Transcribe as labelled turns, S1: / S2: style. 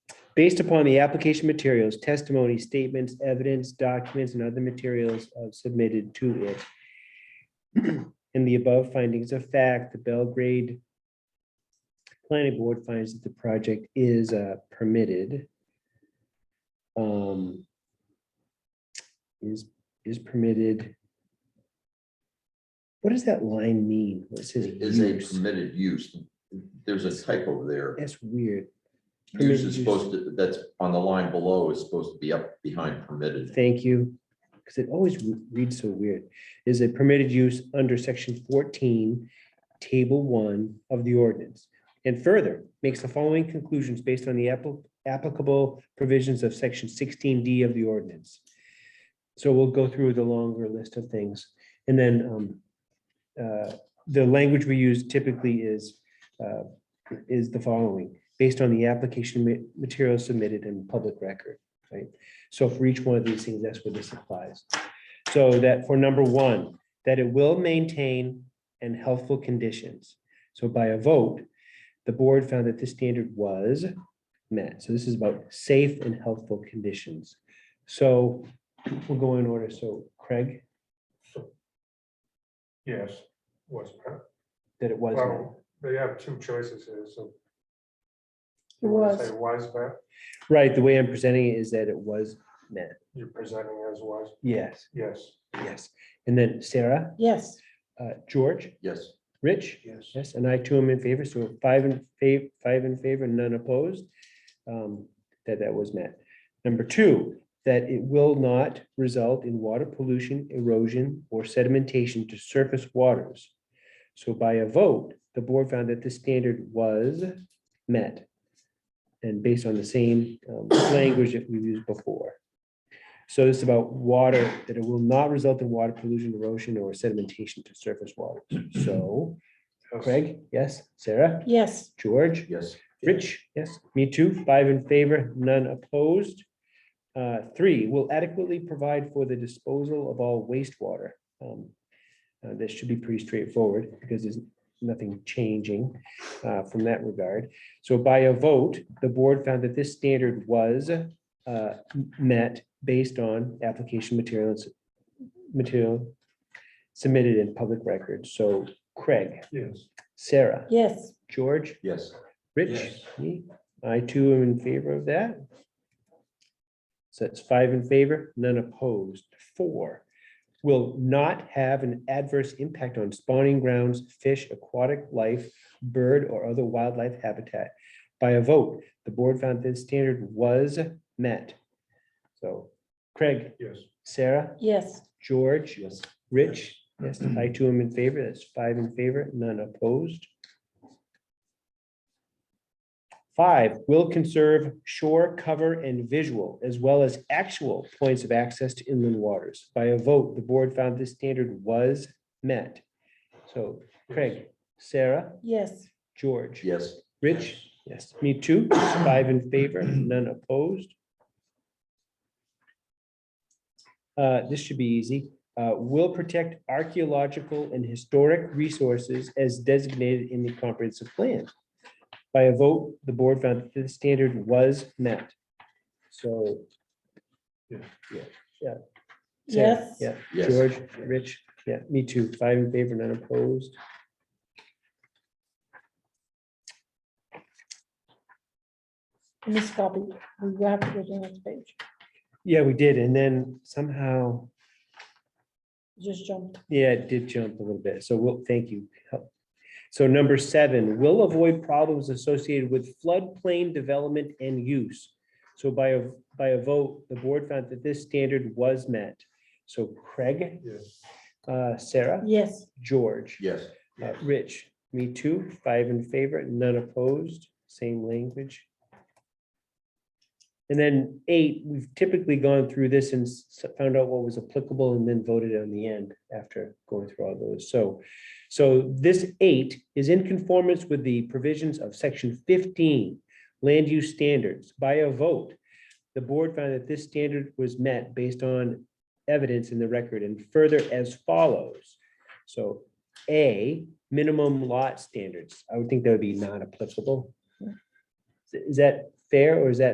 S1: based upon the application materials, testimony, statements, evidence, documents, and other materials uh, submitted to it. In the above findings of fact, the Belgrade Planning Board finds that the project is uh, permitted. Um, Is, is permitted. What does that line mean? What says
S2: Is a
S1: use?
S2: permitted use. There's a typo there.
S1: That's weird.
S2: Use
S1: permitted use.
S2: is supposed to, that's on the line below is supposed to be up behind permitted.
S1: Thank you, because it always re- reads so weird. Is a permitted use under section fourteen, table one of the ordinance. And further, makes the following conclusions based on the appli- applicable provisions of section sixteen D of the ordinance. So we'll go through the longer list of things. And then um, uh, the language we use typically is uh, is the following, based on the application ma- material submitted in public record, right? So for each one of these things, that's where this applies. So that for number one, that it will maintain and healthful conditions. So by a vote, the board found that this standard was met. So this is about safe and healthful conditions. So we'll go in order. So Craig,
S3: Yes, was, per-
S1: that it was met.
S3: well, they have two choices here, so.
S4: It
S3: You want to
S4: was,
S3: say was met,
S1: Right, the way I'm presenting it is that it was met.
S3: you're presenting as was,
S1: Yes,
S3: yes,
S1: yes. And then Sarah,
S4: yes,
S1: uh, George,
S2: Yes,
S1: Rich?
S3: yes.
S1: Yes, and I too am in favor, so five in favor, five in favor, none opposed. um, That that was met. Number two, that it will not result in water pollution, erosion, or sedimentation to surface waters. So by a vote, the board found that this standard was met. And based on the same um, language that we've used before. So this is about water, that it will not result in water pollution, erosion, or sedimentation to surface waters. So
S3: yes.
S1: Craig, yes. Sarah,
S4: yes,
S1: George,
S2: yes,
S1: Rich, yes. Me too. Five in favor, none opposed. Uh, Three, will adequately provide for the disposal of all wastewater. Um, uh, This should be pretty straightforward because there's nothing changing uh, from that regard. So by a vote, the board found that this standard was uh, met based on application materials, material submitted in public record. So Craig,
S3: Yes,
S1: Sarah,
S4: yes,
S1: George,
S2: yes,
S1: Rich,
S3: Yes.
S1: me, I too am in favor of that. So that's five in favor, none opposed. Four, will not have an adverse impact on spawning grounds, fish, aquatic life, bird, or other wildlife habitat. By a vote, the board found this standard was met. So Craig,
S3: yes,
S1: Sarah,
S4: yes,
S1: George,
S2: yes,
S1: Rich, yes, I too am in favor. That's five in favor, none opposed. Five, will conserve shore cover and visual as well as actual points of access to inland waters. By a vote, the board found this standard was met. So Craig, Sarah,
S4: yes,
S1: George,
S2: yes,
S1: Rich, yes, me too. Five in favor, none opposed. Uh, This should be easy. Uh, Will protect archaeological and historic resources as designated in the comprehensive plan. By a vote, the board found that the standard was met. So.
S3: Yeah.
S1: Yeah, yeah. Sarah,
S4: yes.
S1: Yeah.
S2: yes,
S1: George, Rich, yeah, me too. Five in favor, none opposed.
S4: Miss Copy, we have to go to the next page,
S1: Yeah, we did. And then somehow
S4: just jumped,
S1: Yeah, it did jump a little bit. So we'll, thank you. So number seven, will avoid problems associated with floodplain development and use. So by a, by a vote, the board found that this standard was met. So Craig,
S3: yes,
S1: uh, Sarah,
S4: yes,
S1: George.
S2: yes,
S1: Uh, Rich, me too, five in favor, none opposed, same language. And then eight, we've typically gone through this and s- found out what was applicable and then voted on the end after going through all those. So, so this eight is in conformance with the provisions of section fifteen, land use standards by a vote. The board found that this standard was met based on evidence in the record and further as follows. So a, minimum lot standards. I would think that would be non-applicable. Is that fair or is that